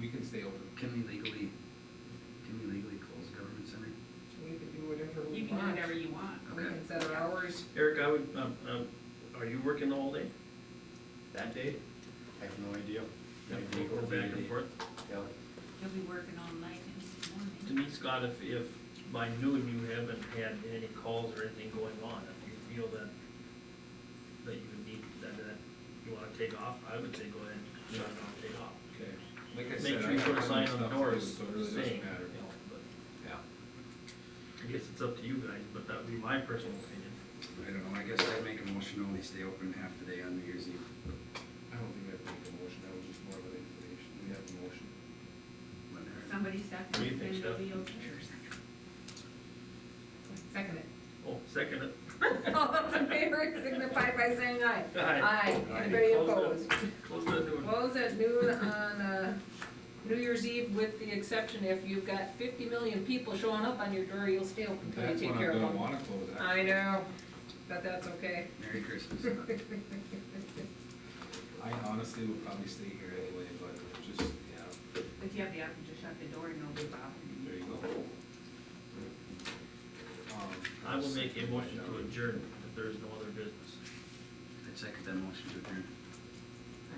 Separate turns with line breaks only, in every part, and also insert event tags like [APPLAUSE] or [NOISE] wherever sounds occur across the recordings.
we can stay open.
Can we legally, can we legally close a government center?
We can do whatever we want.
You can do whatever you want.
We can set our hours.
Eric, I would, um, um, are you working all day? That day?
I have no idea.
Can we go back and forth?
Yeah.
He'll be working all night into the morning.
To me, Scott, if, if by noon you haven't had any calls or anything going on, if you feel that, that you need, that, that you wanna take off, I would say go ahead and shut it off, take off.
Okay. Like I said,
Make
I
sure you
have
put a sign on the
stuff
doors
too, So it really
saying,
doesn't matter.
you know, but
Yeah.
I guess it's up to you guys, but that would be my personal opinion.
I don't know, I guess I'd make a motion to only stay open half the day on New Year's Eve.
I don't think I'd make a motion, that was just more of an information, we have a motion.
when they're-
Somebody
What do you
second,
think,
then it'll
Steph?
be okay.
Second it. [LAUGHS]
Oh, second it.
All those in favor signify by saying aye.
Aye.
Anybody
Close it.
opposed?
Close that door.
Close at noon on, uh, New Year's Eve with the exception if you've got fifty million people showing up on your door, you'll stay open until you
That's
take
when
care
I
of
don't
them.
wanna close that.
I know, but that's
[LAUGHS]
okay.
Merry
[LAUGHS]
Christmas.
I honestly would probably stay here anyway, but just, yeah,
But you have the option to shut the door and nobody bothering
there
you.
you go. Um,
I will make a motion to adjourn if there is no other business.
I'd second that motion to adjourn.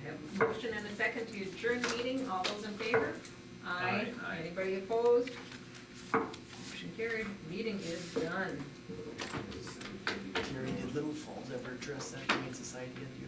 I have a motion and a second to adjourn the meeting. All those in favor? Aye.
Aye. Aye.
Anybody opposed? Motion carried. Meeting is done.
It's-
Jerry, did Little Falls ever address that Humane Society at the